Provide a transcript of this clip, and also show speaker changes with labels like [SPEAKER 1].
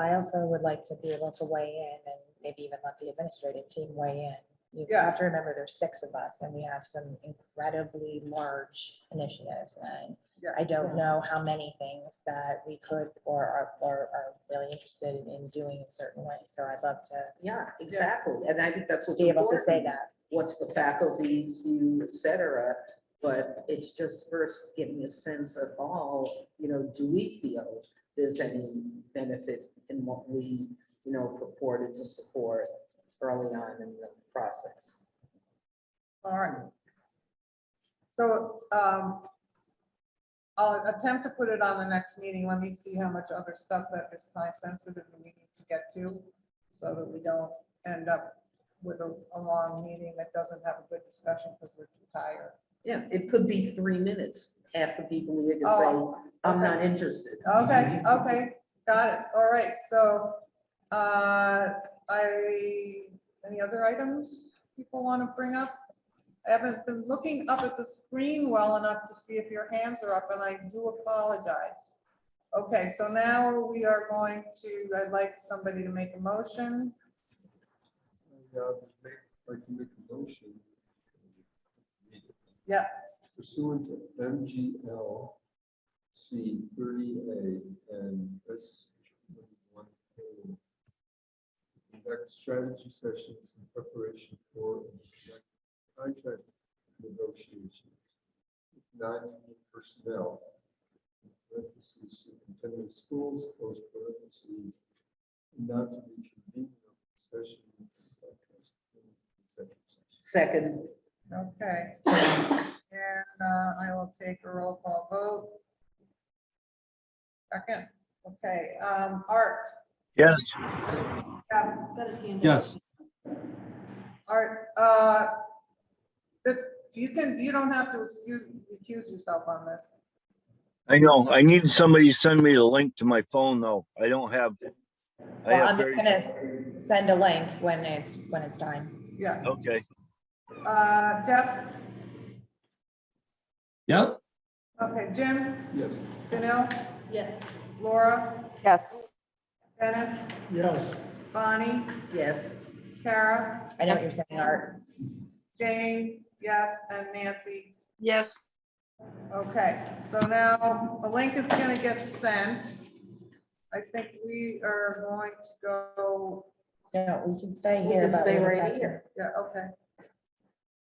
[SPEAKER 1] I also would like to be able to weigh in and maybe even let the administrative team weigh in. You
[SPEAKER 2] Yeah.
[SPEAKER 1] have to remember there's six of us and we have some incredibly large initiatives and
[SPEAKER 2] Yeah.
[SPEAKER 1] I don't know how many things that we could or are, or are really interested in doing in certain ways. So I'd love to
[SPEAKER 3] Yeah, exactly. And I think that's what's
[SPEAKER 1] be able to
[SPEAKER 3] important.
[SPEAKER 1] say that.
[SPEAKER 3] What's the faculty's view, et cetera. But it's just first getting a sense of all, you know, do we feel there's any benefit in what we, you know, purported to support early on in the process?
[SPEAKER 2] All right. So, um, I'll attempt to put it on the next meeting. Let me see how much other stuff that is time sensitive and we need to get to so that we don't end up with a, a long meeting that doesn't have a good discussion because we're too tired.
[SPEAKER 3] Yeah, it could be three minutes. Half the people here can say,
[SPEAKER 2] Oh,
[SPEAKER 3] I'm
[SPEAKER 2] okay.
[SPEAKER 3] not interested.
[SPEAKER 2] Okay, okay, got it. All right, so, uh, I, any other items people want to bring up? I haven't been looking up at the screen well enough to see if your hands are up, and I do apologize. Okay, so now we are going to, I'd like somebody to make a motion.
[SPEAKER 4] Yeah, make, I can make a motion.
[SPEAKER 2] Yeah.
[SPEAKER 4] Pursuant to MGL C thirty A and S twenty-one. A, Conduct strategy sessions in preparation for and conduct contract negotiations. with Non-union personnel. Parentheses, superintendent of schools, close parentheses, not to be convened in session.
[SPEAKER 3] Second,
[SPEAKER 2] Okay. And uh, I will take a roll call vote. Second, okay, um, Art,
[SPEAKER 5] Yes.
[SPEAKER 6] Yes,
[SPEAKER 2] Art, uh, this, you can, you don't have to excuse, accuse yourself on this.
[SPEAKER 5] I know. I needed somebody to send me the link to my phone though. I don't have. I
[SPEAKER 1] Well,
[SPEAKER 5] have
[SPEAKER 1] I'm
[SPEAKER 5] very,
[SPEAKER 1] gonna s- send a link when it's, when it's time.
[SPEAKER 2] Yeah,
[SPEAKER 5] okay.
[SPEAKER 2] uh, Jeff,
[SPEAKER 6] yep,
[SPEAKER 2] okay, Jim,
[SPEAKER 4] Yes.
[SPEAKER 2] Danil? Yes. Laura,
[SPEAKER 7] Yes.
[SPEAKER 2] Dennis?
[SPEAKER 4] Yes.
[SPEAKER 2] Bonnie,
[SPEAKER 3] yes,
[SPEAKER 2] Kara,
[SPEAKER 1] I know what you're saying, Art.
[SPEAKER 2] Jane, yes, and Nancy.
[SPEAKER 8] Yes.
[SPEAKER 2] Okay, so now a link is gonna get sent. I think we are going to go,
[SPEAKER 1] No, we can stay
[SPEAKER 3] we
[SPEAKER 1] here.
[SPEAKER 3] can
[SPEAKER 1] but
[SPEAKER 3] stay
[SPEAKER 1] have
[SPEAKER 3] right
[SPEAKER 1] got-
[SPEAKER 3] here.
[SPEAKER 2] yeah, okay.